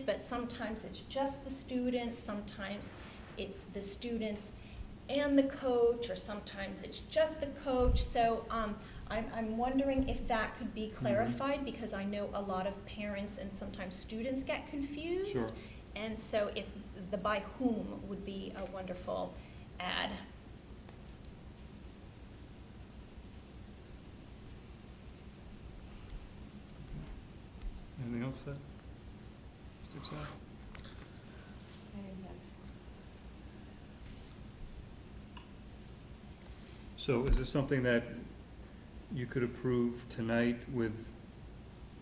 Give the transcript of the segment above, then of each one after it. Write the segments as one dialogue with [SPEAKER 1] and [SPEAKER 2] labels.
[SPEAKER 1] but sometimes it's just the students, sometimes it's the students and the coach, or sometimes it's just the coach. So um, I'm, I'm wondering if that could be clarified, because I know a lot of parents and sometimes students get confused.
[SPEAKER 2] Sure.
[SPEAKER 1] And so if the by whom would be a wonderful add.
[SPEAKER 2] Anything else that sticks out? So is this something that you could approve tonight with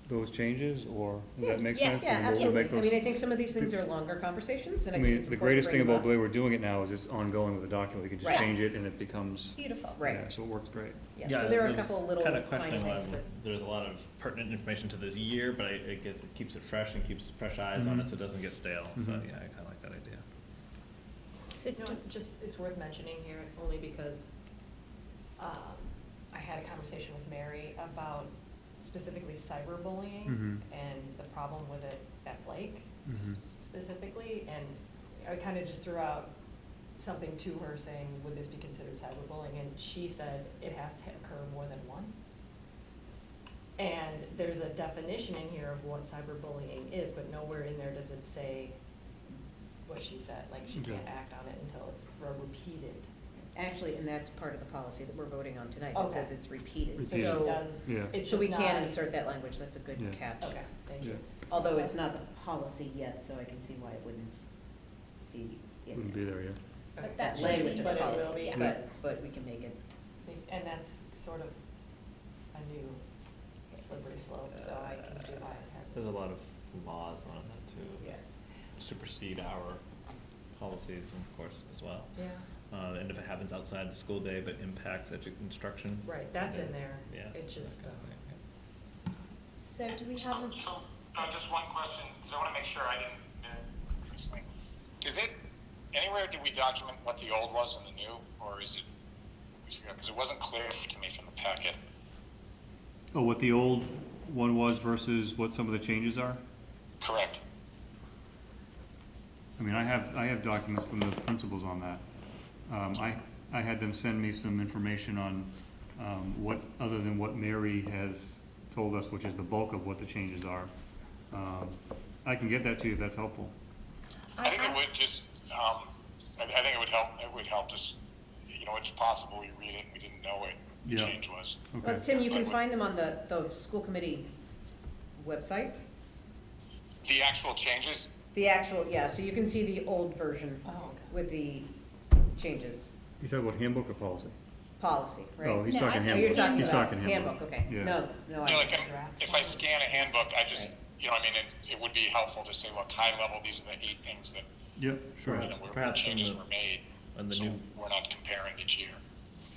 [SPEAKER 2] those changes, or does that make
[SPEAKER 1] Yeah,
[SPEAKER 2] sense?
[SPEAKER 3] Yeah,
[SPEAKER 2] And we'll- we'll
[SPEAKER 3] absolutely.
[SPEAKER 2] make
[SPEAKER 3] I mean, I
[SPEAKER 2] those-
[SPEAKER 3] think some of these things are longer conversations, and
[SPEAKER 2] I
[SPEAKER 3] I think
[SPEAKER 2] mean,
[SPEAKER 3] it's
[SPEAKER 2] the
[SPEAKER 3] important
[SPEAKER 2] greatest
[SPEAKER 3] to
[SPEAKER 2] thing
[SPEAKER 3] bring
[SPEAKER 2] about the
[SPEAKER 3] them up.
[SPEAKER 2] way we're doing it now is it's ongoing with the document, we can just
[SPEAKER 3] Right.
[SPEAKER 2] change it and it becomes,
[SPEAKER 1] Beautiful.
[SPEAKER 3] Right.
[SPEAKER 2] yeah, so it works great.
[SPEAKER 3] Yeah, so there are a
[SPEAKER 4] there's
[SPEAKER 3] couple little
[SPEAKER 4] kinda
[SPEAKER 3] tiny
[SPEAKER 4] questioning why
[SPEAKER 3] things, but,
[SPEAKER 4] There's a lot of pertinent information to this year, but I, I guess it keeps it fresh and keeps fresh eyes on
[SPEAKER 2] Mhm.
[SPEAKER 4] it, so it doesn't get stale. So
[SPEAKER 2] Mhm.
[SPEAKER 4] yeah, I kind of like that idea.
[SPEAKER 1] So
[SPEAKER 5] No,
[SPEAKER 1] do-
[SPEAKER 5] just, it's worth mentioning here, only because um, I had a conversation with Mary about specifically cyberbullying
[SPEAKER 2] Mhm.
[SPEAKER 5] and the problem with it at Blake
[SPEAKER 2] Mhm.
[SPEAKER 5] specifically, and I kind of just threw out something to her saying, would this be considered cyberbullying? And she said, it has to occur more than once. And there's a definition in here of what cyberbullying is, but nowhere in there does it say what she said, like she
[SPEAKER 2] Okay.
[SPEAKER 5] can't act on it until it's repeated.
[SPEAKER 3] actually, and that's part of the policy that we're voting on tonight, that
[SPEAKER 5] Okay.
[SPEAKER 3] says it's repeated,
[SPEAKER 2] Repeated.
[SPEAKER 5] So she
[SPEAKER 3] so,
[SPEAKER 5] does,
[SPEAKER 2] Yeah.
[SPEAKER 5] it's
[SPEAKER 3] so we
[SPEAKER 5] just
[SPEAKER 3] can
[SPEAKER 5] not-
[SPEAKER 3] insert that language, that's a good
[SPEAKER 2] Yeah.
[SPEAKER 3] catch.
[SPEAKER 5] Okay, thank
[SPEAKER 2] Yeah,
[SPEAKER 5] you.
[SPEAKER 3] Although it's not the policy yet, so I can see why it wouldn't be in
[SPEAKER 2] wouldn't be
[SPEAKER 3] there.
[SPEAKER 2] there, yeah.
[SPEAKER 5] Okay.
[SPEAKER 1] But
[SPEAKER 3] That
[SPEAKER 1] should
[SPEAKER 3] language
[SPEAKER 1] be,
[SPEAKER 3] of
[SPEAKER 5] But
[SPEAKER 3] the
[SPEAKER 5] it will
[SPEAKER 3] policy,
[SPEAKER 5] be.
[SPEAKER 2] Yeah.
[SPEAKER 3] but, but we can make it,
[SPEAKER 5] And that's sort of a new slippery slope, so I can see why it
[SPEAKER 4] There's a
[SPEAKER 5] has.
[SPEAKER 4] lot of laws around that too.
[SPEAKER 3] yeah.
[SPEAKER 4] Supersede our policies, of course, as well.
[SPEAKER 5] Yeah,
[SPEAKER 4] Uh, and if it happens outside the school day but impacts edu- instruction.
[SPEAKER 5] right, that's in
[SPEAKER 4] then-
[SPEAKER 5] there.
[SPEAKER 4] Yeah.
[SPEAKER 5] It just,
[SPEAKER 4] that kind of
[SPEAKER 5] uh,
[SPEAKER 4] thing, yeah.
[SPEAKER 1] so do we
[SPEAKER 6] So,
[SPEAKER 1] have, a-
[SPEAKER 6] so, uh, just one question, because I want to make sure I didn't, uh, explain. Is it, anywhere did we document what the old was and the new, or is it, we forgot, because it wasn't clear to me from the packet.
[SPEAKER 2] Oh, what the old one was versus what some of the changes are?
[SPEAKER 6] Correct.
[SPEAKER 2] I mean, I have, I have documents from the principals on that. Um, I, I had them send me some information on, um, what, other than what Mary has told us, which is the bulk of what the changes are. Um, I can get that to you if that's helpful.
[SPEAKER 6] I
[SPEAKER 1] I,
[SPEAKER 6] think it
[SPEAKER 1] I,
[SPEAKER 6] would just, um, I, I think it would help, it would help just, you know, it's possible we read it and we didn't know what the
[SPEAKER 2] Yeah.
[SPEAKER 6] change was.
[SPEAKER 3] Well,
[SPEAKER 2] Okay.
[SPEAKER 3] Tim, you can find them on the, the school committee website,
[SPEAKER 6] The actual changes,
[SPEAKER 3] the actual, yeah, so you can see the old version
[SPEAKER 5] oh, okay.
[SPEAKER 3] with the changes,
[SPEAKER 2] You talking about handbook or policy?
[SPEAKER 3] policy, right?
[SPEAKER 2] Oh, he's
[SPEAKER 1] No, I
[SPEAKER 2] talking
[SPEAKER 1] think
[SPEAKER 3] Oh, you're
[SPEAKER 2] handbook.
[SPEAKER 3] talking
[SPEAKER 2] He's
[SPEAKER 3] about
[SPEAKER 2] talking handbook.
[SPEAKER 3] okay.
[SPEAKER 2] Yeah.
[SPEAKER 3] No, no,
[SPEAKER 6] you know,
[SPEAKER 3] I,
[SPEAKER 6] like, I'm- if I scan a handbook, I just, you know, I mean, it, it would be helpful to say, look, high level, these are the eight things that
[SPEAKER 2] Yep, sure,
[SPEAKER 6] you know,
[SPEAKER 4] Perhaps-
[SPEAKER 6] where- where
[SPEAKER 4] perhaps in
[SPEAKER 6] changes
[SPEAKER 4] the-
[SPEAKER 6] were made,
[SPEAKER 4] on the
[SPEAKER 6] so
[SPEAKER 4] new-
[SPEAKER 6] we're not comparing each year.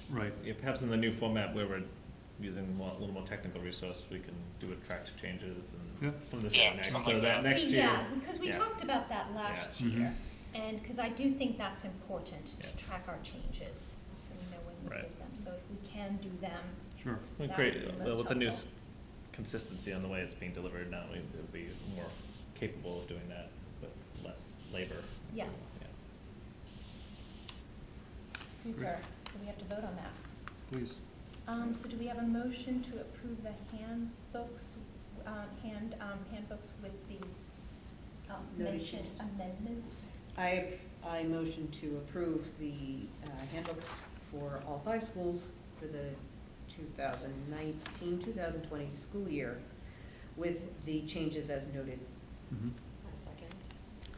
[SPEAKER 2] right.
[SPEAKER 4] Yeah, perhaps in the new format where we're using more- a little more technical resource, we can do attract changes
[SPEAKER 2] Yeah.
[SPEAKER 4] and from this
[SPEAKER 6] Yeah,
[SPEAKER 4] to next,
[SPEAKER 6] something
[SPEAKER 4] so
[SPEAKER 6] like
[SPEAKER 4] that
[SPEAKER 6] that.
[SPEAKER 4] next
[SPEAKER 1] see,
[SPEAKER 4] year.
[SPEAKER 1] yeah, because we
[SPEAKER 4] yeah.
[SPEAKER 1] talked about that last
[SPEAKER 4] Yeah.
[SPEAKER 1] year.
[SPEAKER 2] Mhm.
[SPEAKER 1] And, because I do think that's important
[SPEAKER 4] Yeah.
[SPEAKER 1] to track our changes, so we know when we
[SPEAKER 4] Right.
[SPEAKER 1] did them. So if we can do them,
[SPEAKER 2] Sure.
[SPEAKER 4] We
[SPEAKER 1] That
[SPEAKER 4] create,
[SPEAKER 1] would be
[SPEAKER 4] uh,
[SPEAKER 1] most
[SPEAKER 4] with the new s-
[SPEAKER 1] helpful.
[SPEAKER 4] consistency on the way it's being delivered now, we- it'll be more capable of doing that with less labor.
[SPEAKER 1] Yeah.
[SPEAKER 4] Yeah.
[SPEAKER 1] super, so we have to vote on that.
[SPEAKER 2] Please.
[SPEAKER 1] Um, so do we have a motion to approve the handbooks, uh, hand, um, handbooks with the, um,
[SPEAKER 3] Noted
[SPEAKER 1] mentioned
[SPEAKER 3] changes.
[SPEAKER 1] amendments?
[SPEAKER 3] I, I motion to approve the uh, handbooks for all five schools for the 2019, 2020 school year with the changes as noted.
[SPEAKER 2] Mhm.
[SPEAKER 5] A second.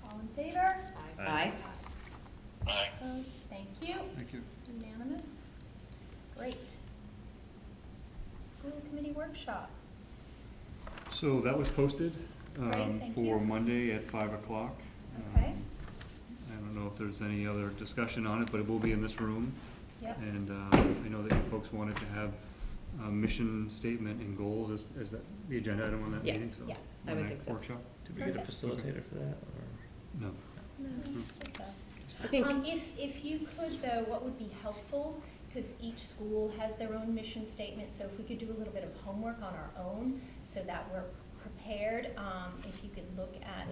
[SPEAKER 1] All in favor?
[SPEAKER 5] I-
[SPEAKER 4] Aye.
[SPEAKER 6] Aye.
[SPEAKER 1] Opposed? Thank you.
[SPEAKER 2] Thank you.
[SPEAKER 1] Unanimous? Great. School committee workshop.
[SPEAKER 2] So that was posted
[SPEAKER 1] Great,
[SPEAKER 2] um,
[SPEAKER 1] thank
[SPEAKER 2] for
[SPEAKER 1] you.
[SPEAKER 2] Monday at five o'clock.
[SPEAKER 1] Okay.
[SPEAKER 2] Um, I don't know if there's any other discussion on it, but it will be in this room.
[SPEAKER 1] Yep.
[SPEAKER 2] And um, I know that you folks wanted to have a mission statement and goals as, as that- the agenda item on that
[SPEAKER 3] Yeah,
[SPEAKER 2] meeting, so.
[SPEAKER 1] yeah,
[SPEAKER 3] I
[SPEAKER 2] on
[SPEAKER 3] would
[SPEAKER 2] that
[SPEAKER 3] think so.
[SPEAKER 2] Workshop?
[SPEAKER 4] Did we get a
[SPEAKER 1] Perfect.
[SPEAKER 4] facilitator for that, or?
[SPEAKER 2] No.
[SPEAKER 1] No,
[SPEAKER 2] Mm.
[SPEAKER 1] just us.
[SPEAKER 3] I think,
[SPEAKER 1] Um, if, if you could though, what would be helpful, because each school has their own mission statement, so if we could do a little bit of homework on our own, so that we're prepared, um, if you could look at,